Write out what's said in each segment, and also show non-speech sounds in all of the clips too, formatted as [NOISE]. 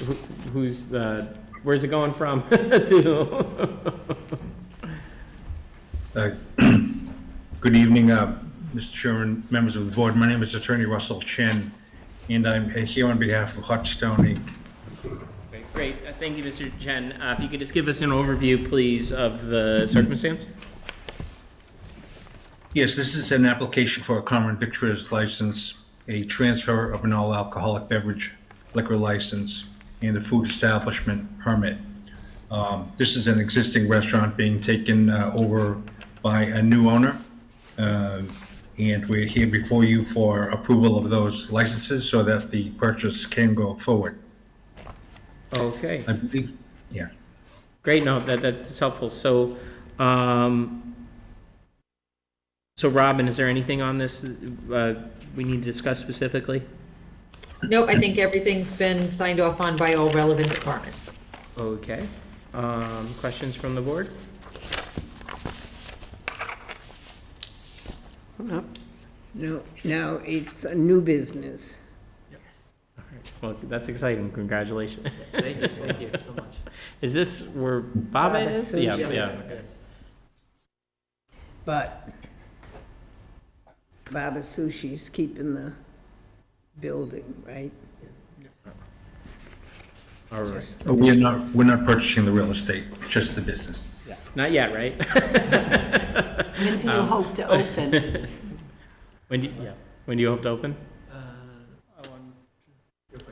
who- who's the, where's it going from [LAUGHS] to? Uh, Good evening, uh, Mr. Chairman, members of the board. My name is Attorney Russell Chen, and I'm uh, here on behalf of Hotstone Inc. Great, uh, thank you, Mr. Chen. Uh, If you could just give us an overview, please, of the circumstance? Yes, this is an application for a common victor's license, a transfer of an all-alcoholic beverage liquor license, and a food establishment permit. Um, This is an existing restaurant being taken uh, over by a new owner. Um, And we're here before you for approval of those licenses so that the purchase can go forward. Okay, I believe, yeah. great, no, that, that's helpful. So, um, so Robin, is there anything on this uh, we need to discuss specifically? Nope, I think everything's been signed off on by all relevant departments. Okay, um, questions from the board? Up. No, now it's a new business. All right. Well, that's exciting, congratulations. Thank you, thank you so much. Is this where Bob Bob is? Asuncion. Yeah, yeah. Yes. But Baba Sushi's keeping the building, right? All right. We're not, we're not purchasing the real estate, just the business. Not yet, [LAUGHS] right? Um, Until you hope to open. [LAUGHS] When do, yeah, when do you hope to open? Uh, I want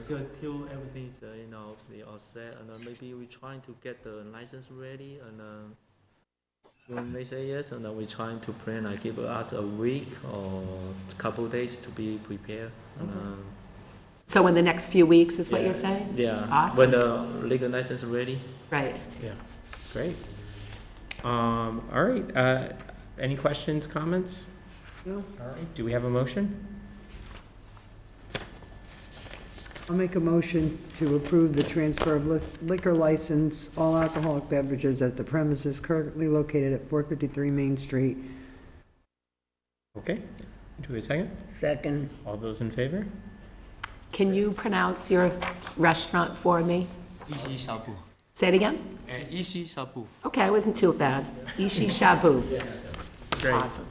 to, till everything is, uh, you know, the all set, and then maybe we trying to get the license ready, and, uh, when they say yes, and then we trying to plan, like give us a week or couple days to be prepared. and, uh, So in the next few weeks is what Yeah. you're saying? Yeah, Awesome. when the legal license ready. Right. Yeah. Great. Um, all right, uh, any questions, comments? No. All right, do we have a motion? I'll make a motion to approve the transfer of li- liquor license, all alcoholic beverages at the premises currently located at 453 Main Street. Okay, do we have a second? Second, All those in favor? Can you pronounce your restaurant for me? Ishi E Shabu. Say it again? Ishi E Shabu. Okay, I wasn't too bad. Ishi Shabu. Great, Awesome.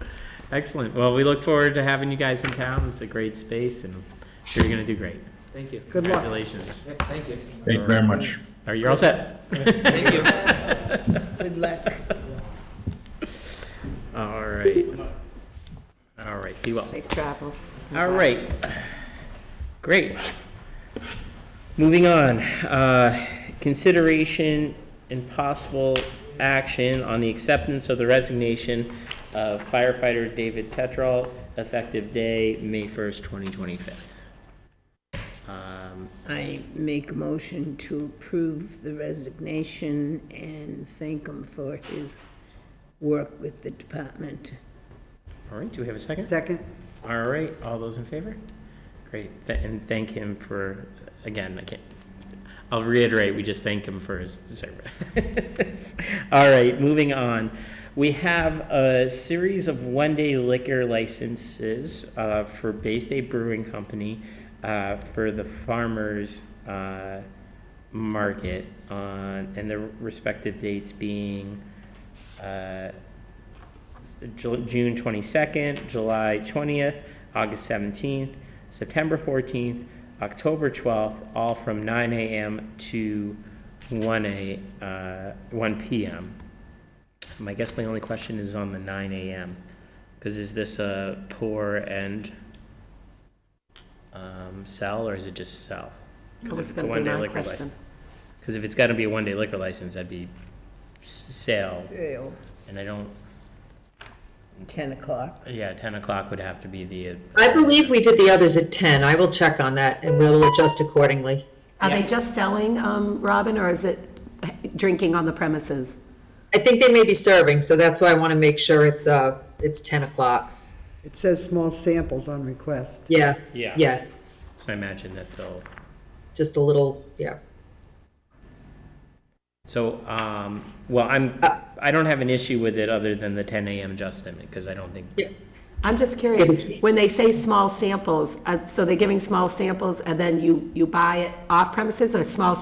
excellent. Well, we look forward to having you guys in town. It's a great space and I'm sure you're gonna do great. Thank you. good luck. Congratulations. Thank you. Thank you very much. All right, you're all set. Thank you. Good luck. All right. All right, be well. Safe travels. All right. Great. Moving on, uh, consideration and possible action on the acceptance of the resignation of firefighter David Tetral, effective day, May 1st, 2025. Um, I make a motion to approve the resignation and thank him for his work with the department. All right, do we have a second? Second? All right, all those in favor? Great, Th- and thank him for, again, I can't, I'll reiterate, we just thank him for his service. [LAUGHS] All right, moving on. We have a series of one-day liquor licenses uh, for Bay State Brewing Company uh, for the farmers uh, market on, and their respective dates being uh, Ju- June 22nd, July 20th, August 17th, September 14th, October 12th, all from 9 a.m. to 1 a, uh, 1 p.m. Um, I guess my only question is on the 9 a.m. Because is this a pour and um, sell, or is it just sell? That Because was if it's a gonna be one-day my liquor question. license. Because if it's got to be a one-day liquor license, that'd be s- sale, Sale, and I don't 10 o'clock. yeah, ten o'clock would have to be the. uh, I believe we did the others at 10. I will check on that and we'll adjust accordingly. Are Yeah. they just selling, um, Robin, or is it drinking on the premises? I think they may be serving, so that's why I want to make sure it's, uh, it's 10 o'clock. It says small samples on request. Yeah, Yeah. yeah, I imagine that they'll, just a little, yeah. so, um, well, I'm, I don't have an issue with it other than the ten AM Justin, because I don't think, I'm just curious, when they say small samples, uh, so they're giving small samples and then you, you buy it off premises or small